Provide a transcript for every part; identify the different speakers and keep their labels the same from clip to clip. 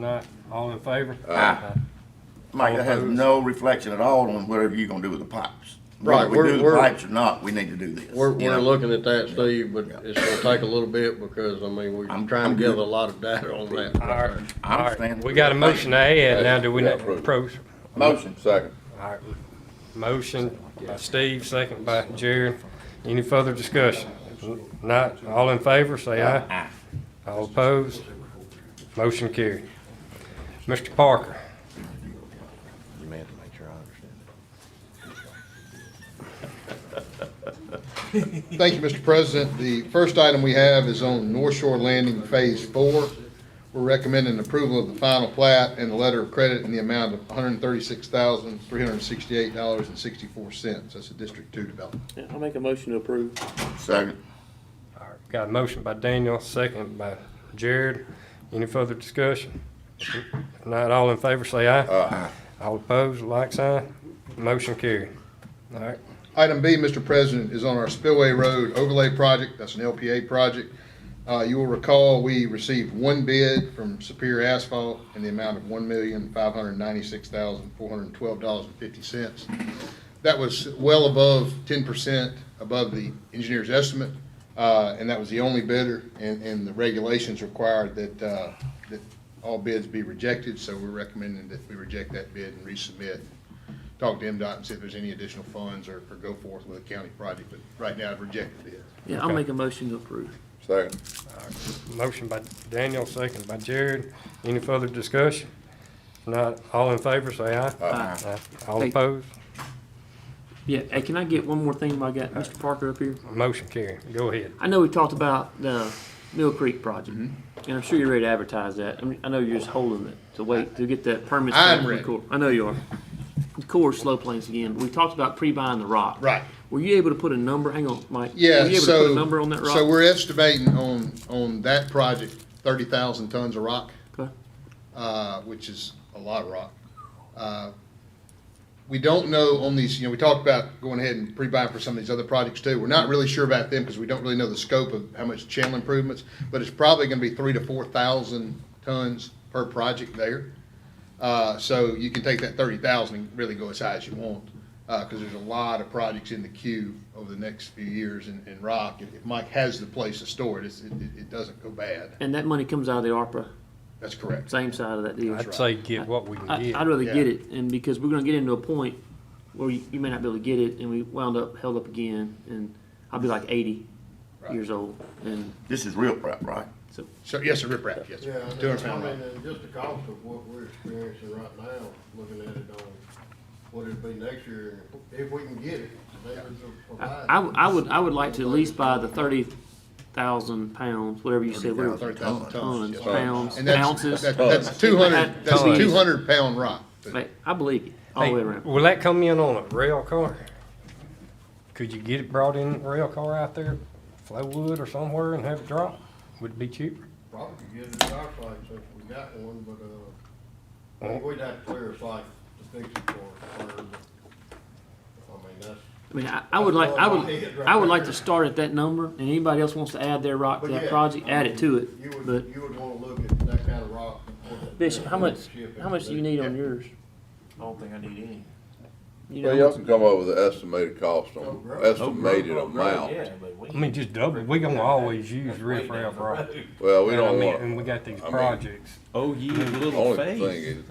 Speaker 1: Not, all in favor?
Speaker 2: Aye. Mike, that has no reflection at all on whatever you're gonna do with the pipes. Whether
Speaker 3: Right,
Speaker 2: we
Speaker 3: we're-
Speaker 2: do the
Speaker 3: we're-
Speaker 2: pipes or not, we need to do this.
Speaker 3: We're,
Speaker 2: you
Speaker 3: we're
Speaker 2: know?
Speaker 3: looking at that, Steve, but
Speaker 2: Yeah.
Speaker 3: it's gonna take a little bit because, I mean, we're
Speaker 2: I'm-
Speaker 3: trying
Speaker 2: I'm
Speaker 3: to gather
Speaker 2: good.
Speaker 3: a lot of data on that.
Speaker 1: All right,
Speaker 2: I
Speaker 1: all right.
Speaker 2: understand.
Speaker 1: We got a motion eh? to add, now do we
Speaker 4: Yeah,
Speaker 1: not
Speaker 4: approve.
Speaker 1: approach?
Speaker 2: Motion.
Speaker 4: Second.
Speaker 1: All right, motion by Steve, second by Jared. Any further discussion? If Not, all in favor, say aye. All opposed? Motion carried. Mr. Parker,
Speaker 4: You may have to make sure I understand.
Speaker 5: Thank you, Mr. President. The first item we have is on North Shore Landing Phase Four. We're recommending approval of the final plat and the letter of credit in the amount of one hundred thirty-six thousand, three hundred sixty-eight dollars and sixty-four cents. That's a District Two development.
Speaker 6: Yeah, I'll make a motion to approve.
Speaker 2: Second.
Speaker 1: All right, got a motion by Daniel, second by Jared. Any further discussion? If Not, all in favor, say aye.
Speaker 2: Aye.
Speaker 1: All opposed, like sign. Motion carried. All right,
Speaker 5: Item B, Mr. President, is on our Spillway Road overlay project. That's an LPA project. Uh, you will recall, we received one bid from Superior Asphalt in the amount of one million, five hundred ninety-six thousand, four hundred twelve dollars and fifty cents. That was well above ten percent above the engineer's estimate, uh, and that was the only bidder, and, and the regulations required that, uh, that all bids be rejected, so we're recommending that we reject that bid and resubmit talk to MDOT and see if there's any additional funds or, or go forth with a county project, but right now I've rejected it.
Speaker 6: Yeah, I'll make a motion to approve.
Speaker 4: Second.
Speaker 1: motion by Daniel, second by Jared. Any further discussion? If Not, all in favor, say aye.
Speaker 6: Aye.
Speaker 1: Aye. All
Speaker 6: Hey.
Speaker 1: opposed,
Speaker 6: Yeah, hey, can I get one more thing while I got Mr. Parker up here?
Speaker 1: motion carried. Go ahead.
Speaker 6: I know we talked about the Mill Creek project,
Speaker 5: Mm-hmm.
Speaker 6: and I'm sure you're ready to advertise that. I mean, I know you're just holding it to wait to get that permit.
Speaker 5: I'm
Speaker 6: from the
Speaker 5: ready.
Speaker 6: Corps. I know you are. The Corps slow planes again, but we talked about pre-buying the rock.
Speaker 5: Right.
Speaker 6: Were you able to put a number, hang on, Mike? Were
Speaker 5: Yeah,
Speaker 6: you able to put a number on that
Speaker 5: so,
Speaker 6: rock?
Speaker 5: so we're estimating on, on that project, thirty thousand tons of rock.
Speaker 6: Okay.
Speaker 5: uh, which is a lot of rock. Uh, We don't know on these, you know, we talked about going ahead and pre-buying for some of these other projects too. We're not really sure about them because we don't really know the scope of how much channel improvements, but it's probably gonna be three to four thousand tons per project there. Uh, So you can take that thirty thousand and really go as high as you want, because there's a lot of projects in the queue over the next few years in, in rock. If if Mike has the place to store it, it's, it, it- it doesn't go bad.
Speaker 6: And that money comes out of the ARPA,
Speaker 5: That's correct.
Speaker 6: same side of that deal.
Speaker 1: I'd say get what we can
Speaker 6: I,
Speaker 1: get.
Speaker 6: I'd rather get
Speaker 5: Yeah.
Speaker 6: it, and because we're gonna get into a point where you, you may not be able to get it, and we wound up held up again, and I'll be like eighty
Speaker 5: Right.
Speaker 6: years old, and
Speaker 2: This is real prep, right?
Speaker 6: so
Speaker 5: So, yes, a riprap, yes.
Speaker 7: Yeah, I mean,
Speaker 5: Two hundred pound
Speaker 7: I
Speaker 5: rock.
Speaker 7: mean, and just the cost of what we're experiencing right now, looking at it on what it'd be next year, and if we can get it, they would
Speaker 6: I,
Speaker 7: provide.
Speaker 6: I, I would I would like to at least buy the thirty thousand pounds, whatever you said, whatever
Speaker 5: 30,000 tons,
Speaker 6: tons,
Speaker 5: yes.
Speaker 6: pounds,
Speaker 5: And that's,
Speaker 6: ounces.
Speaker 5: that- that's two hundred, that's a
Speaker 6: Tons.
Speaker 5: two hundred pound rock.
Speaker 6: Like, I believe you all
Speaker 1: Hey,
Speaker 6: the way around.
Speaker 1: Will that come in on a rail car? Could you get it brought in rail car out there, Flowwood or somewhere and have it dropped? Would it be cheaper?
Speaker 7: Probably could get it at our site since we got one, but, uh, I think we'd have to clear a site to fix it for, for, I mean, that's,
Speaker 6: I mean, I, I would like I would I would like to start at that number, and anybody else wants to add their rock to
Speaker 7: But
Speaker 6: that
Speaker 7: yeah,
Speaker 6: project,
Speaker 7: I
Speaker 6: add it to
Speaker 7: you
Speaker 6: it. But
Speaker 7: would, you would wanna look at that kind of rock. and what it-
Speaker 6: Bishop, how much
Speaker 7: Ship
Speaker 6: how much do you
Speaker 7: everything.
Speaker 6: need on yours?
Speaker 8: I don't think I need any.
Speaker 6: You know,
Speaker 4: Well, y'all can come up with an estimated cost
Speaker 7: Oh,
Speaker 4: on,
Speaker 7: bro.
Speaker 4: estimated
Speaker 6: Oh,
Speaker 4: amount.
Speaker 8: Yeah, but we.
Speaker 1: I mean, just double, we gonna always use riff raff rock.
Speaker 4: Well, we
Speaker 1: And I
Speaker 4: don't
Speaker 1: mean, And
Speaker 4: want,
Speaker 1: we got these
Speaker 4: mean-
Speaker 1: projects.
Speaker 8: Oh, ye little
Speaker 4: only thing
Speaker 8: faith.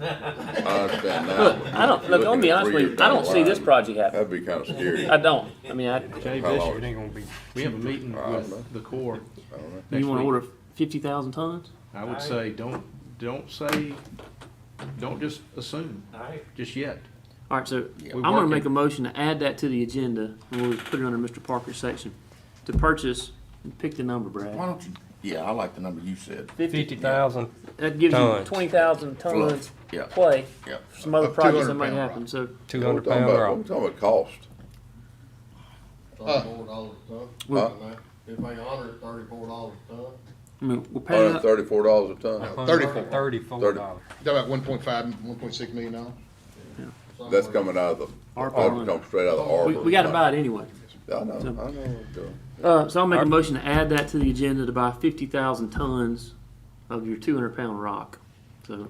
Speaker 4: is, I understand
Speaker 6: Look,
Speaker 4: now.
Speaker 6: I don't, look, I'll be honest with you, I don't see this project happening.
Speaker 4: That'd be kinda scary.
Speaker 6: I don't. I mean, I,
Speaker 8: Jay
Speaker 4: How
Speaker 8: Bishop,
Speaker 4: long?
Speaker 1: It ain't gonna be,
Speaker 8: we have a meeting
Speaker 4: I don't know.
Speaker 8: with the Corps.
Speaker 6: you
Speaker 8: next
Speaker 6: wanna
Speaker 8: week.
Speaker 6: order fifty thousand tons?
Speaker 8: I would say, don't, don't say, don't just assume, just yet.
Speaker 6: Alright, so I'm
Speaker 8: We're
Speaker 6: gonna
Speaker 8: working.
Speaker 6: make a motion to add that to the agenda, and we'll put it under Mr. Parker's section, to purchase, pick the number,
Speaker 2: Why
Speaker 6: Brad.
Speaker 2: don't you, yeah, I like the number you said.
Speaker 1: fifty thousand,
Speaker 6: That gives you
Speaker 1: Tons.
Speaker 6: twenty thousand tons
Speaker 2: Yeah.
Speaker 6: play,
Speaker 2: Yeah.
Speaker 6: for some other
Speaker 5: Of
Speaker 6: projects that
Speaker 5: 200
Speaker 6: might
Speaker 5: pound
Speaker 6: happen,
Speaker 5: rock.
Speaker 6: so
Speaker 1: two
Speaker 4: What we
Speaker 1: hundred
Speaker 4: talking
Speaker 1: pound
Speaker 4: about, what we
Speaker 1: rock.
Speaker 4: talking about cost?
Speaker 7: Thirty-four dollars a ton,
Speaker 6: Well-
Speaker 7: something like that. if they honor it, thirty-four dollars a ton.
Speaker 6: I mean, we'll pay
Speaker 4: Hundred
Speaker 6: up.
Speaker 4: thirty-four dollars a
Speaker 6: Uh-huh.
Speaker 4: ton?
Speaker 5: Thirty-four.
Speaker 1: Thirty-four
Speaker 4: Thirty.
Speaker 1: dollars.
Speaker 5: Talking about one point five, one point six million dollars?
Speaker 4: That's
Speaker 7: somewhere.
Speaker 4: coming out of the,
Speaker 6: ARPA
Speaker 4: that'd
Speaker 6: money.
Speaker 4: come straight out of the
Speaker 6: We,
Speaker 4: ARPA.
Speaker 6: we gotta buy it anyway.
Speaker 4: I know, I know what I'm doing.
Speaker 6: Uh, so I'll make a motion to add that to the agenda to buy fifty thousand tons of your two hundred pound rock. so.